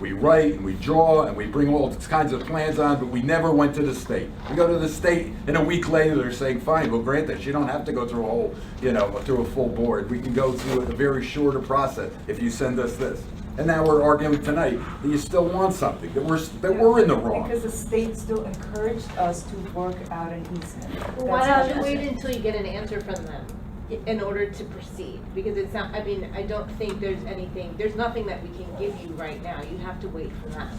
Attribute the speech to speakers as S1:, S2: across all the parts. S1: We write and we draw and we bring all kinds of plans on, but we never went to the state. We go to the state and a week later, they're saying, fine, we'll grant this. You don't have to go through a whole, you know, through a full board. We can go through a very shorter process if you send us this. And now we're arguing tonight that you still want something, that we're, that we're in the wrong.
S2: Because the state still encouraged us to work out an easement.
S3: Well, why
S2: That's
S3: don't
S2: how
S3: you
S2: it
S3: wait
S2: is.
S3: until you get an answer from them i- in order to proceed? Because it's not, I mean, I don't think there's anything, there's nothing that we can give you right now. You have to wait for that.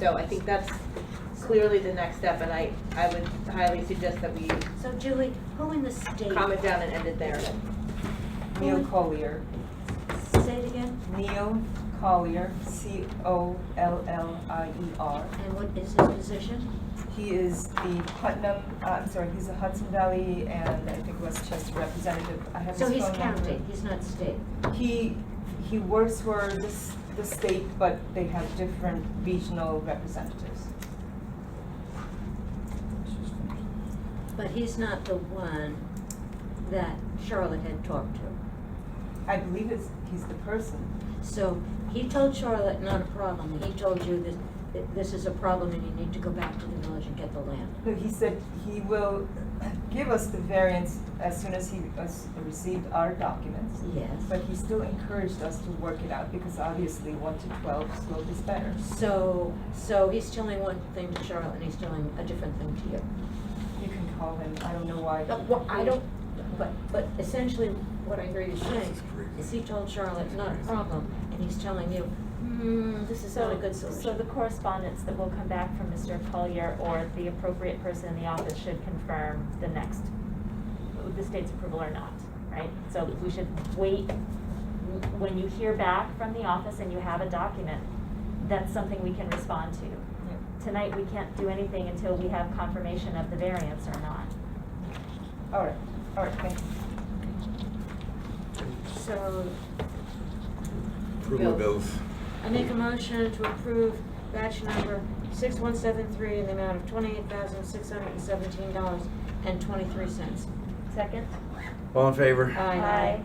S3: So I think that's clearly the next step, and I, I would highly suggest that we
S4: So Julie, who in the state,
S3: calm it down and end it there.
S2: Neil Collier,
S4: say it again,
S2: Neil Collier, C O L L I E R.
S4: and what is his position?
S2: He is the Putnam, uh, I'm sorry, he's a Hudson Valley and I think Westchester representative. I have his
S4: So
S2: phone
S4: he's
S2: number.
S4: county, he's not state.
S2: He, he works for this, the state, but they have different regional representatives.
S4: But he's not the one that Charlotte had talked to.
S2: I believe it's, he's the person.
S4: So he told Charlotte, not a problem, he told you that that this is a problem and you need to go back to the village and get the land.
S2: No, he said he will give us the variance as soon as he has received our documents.
S4: Yes.
S2: But he still encouraged us to work it out because obviously one to twelve slope is better.
S4: So, so he's telling one thing to Charlotte and he's telling a different thing to you.
S2: You can call him, I don't know why.
S4: But what, I don't, but, but essentially what I hear you saying is he told Charlotte, not a problem, and he's telling you, hmm, this is not a good solution.
S5: So the correspondence that will come back from Mr. Collier or the appropriate person in the office should confirm the next, the state's approval or not, right? So we should wait, when you hear back from the office and you have a document, that's something we can respond to.
S2: Yeah.
S5: Tonight, we can't do anything until we have confirmation of the variance or not.
S2: All right, all right, thank you.
S4: So
S1: Approval of bills.
S4: I make a motion to approve batch number six one seven three in the amount of twenty-eight thousand, six hundred and seventeen dollars and twenty-three cents.
S5: Second?
S1: All in favor?
S4: Aye.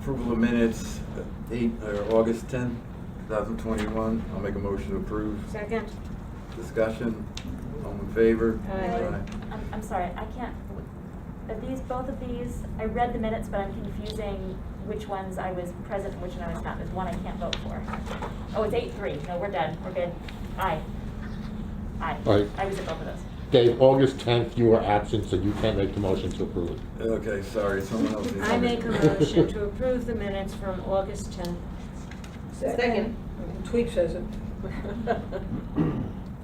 S1: Approval of minutes, uh, eight, or August tenth, two thousand twenty-one. I'll make a motion to approve.
S4: Second?
S1: Discussion, all in favor?
S4: Aye.
S5: I'm, I'm sorry, I can't, are these, both of these, I read the minutes, but I'm confusing which ones I was present and which one I was not, there's one I can't vote for. Oh, it's eight three, no, we're done, we're good, aye. Aye.
S6: Aye.
S5: I was at both of those.
S6: Dave, August 10th, you were absent, so you can't make the motion to approve it.
S1: Okay, sorry, someone else. needs
S4: I
S1: to-
S4: make a motion to approve the minutes from August tenth.
S3: Second.
S7: Tweak says it.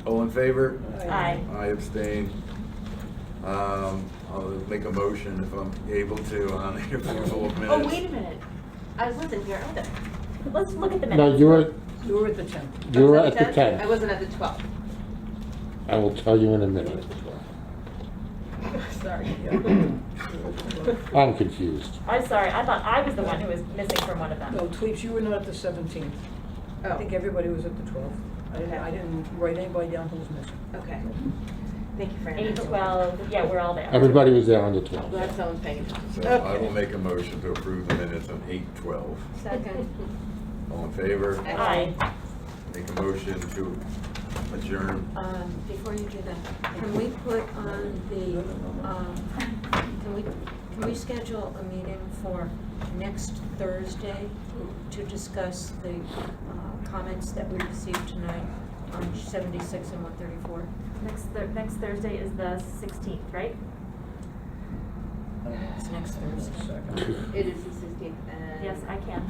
S1: All in favor?
S5: Aye.
S1: I abstain. Um, I'll make a motion if I'm able to on the approval of
S3: Oh,
S1: minutes.
S3: wait a minute. I wasn't here either.
S5: Let's look at the minutes.
S6: No, you were,
S7: You were at the temp.
S6: you were
S3: I
S6: at
S3: was
S6: the
S3: I
S6: 10th.
S3: wasn't at the twelfth.
S6: I will tell you in a minute.
S3: Sorry.
S6: I'm confused.
S5: I'm sorry, I thought I was the one who was missing from one of them.
S7: No, Tweaks, you were not at the seventeenth. I think
S3: Oh,
S7: everybody was at the twelfth. I didn't, I didn't write anybody down who was missing.
S3: okay. Thank you for
S5: Eight,
S3: answering.
S5: twelve, yeah, we're all there.
S6: Everybody was there on the
S3: I'm
S6: 12th.
S3: Glad someone's paying attention.
S1: So I will make a motion to approve the minutes on eight twelve.
S4: Second.
S1: All in favor?
S5: Aye.
S1: Make a motion to adjourn.
S4: Um, before you do that, can we put on the, um, can we, can we schedule a meeting for next Thursday to discuss the uh, comments that we received tonight on seventy-six and one thirty-four?
S5: Next, Thur- next Thursday is the sixteenth, right?
S4: It's next Thursday.
S3: It is the sixteenth and.
S5: Yes, I can.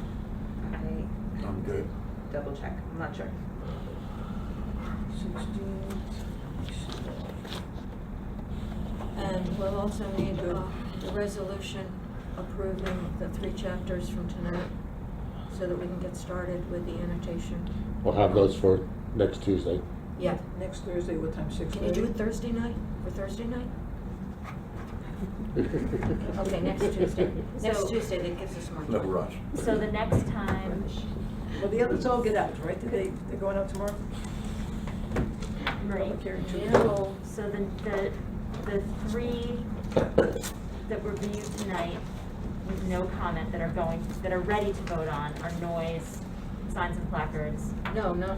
S3: I
S1: I'm good.
S3: double check, I'm not sure.
S7: Sixteenth.
S4: And we'll also need uh, the resolution approving the three chapters from tonight so that we can get started with the annotation.
S6: We'll have those for next Tuesday.
S4: Yeah.
S7: Next Thursday, what time, six
S4: Can you do
S7: thirty?
S4: it Thursday night, for Thursday night? Okay, next Tuesday. Next
S5: So-
S4: Tuesday, that gives us more time.
S1: No rush.
S5: So the next time,
S7: Well, the others all get out, right? Did They, they're going out tomorrow?
S5: Marie,
S7: Public hearing tomorrow.
S5: no, so the, the, the three that were viewed tonight with no comment that are going, that are ready to vote on are noise, signs and placards,
S4: No, not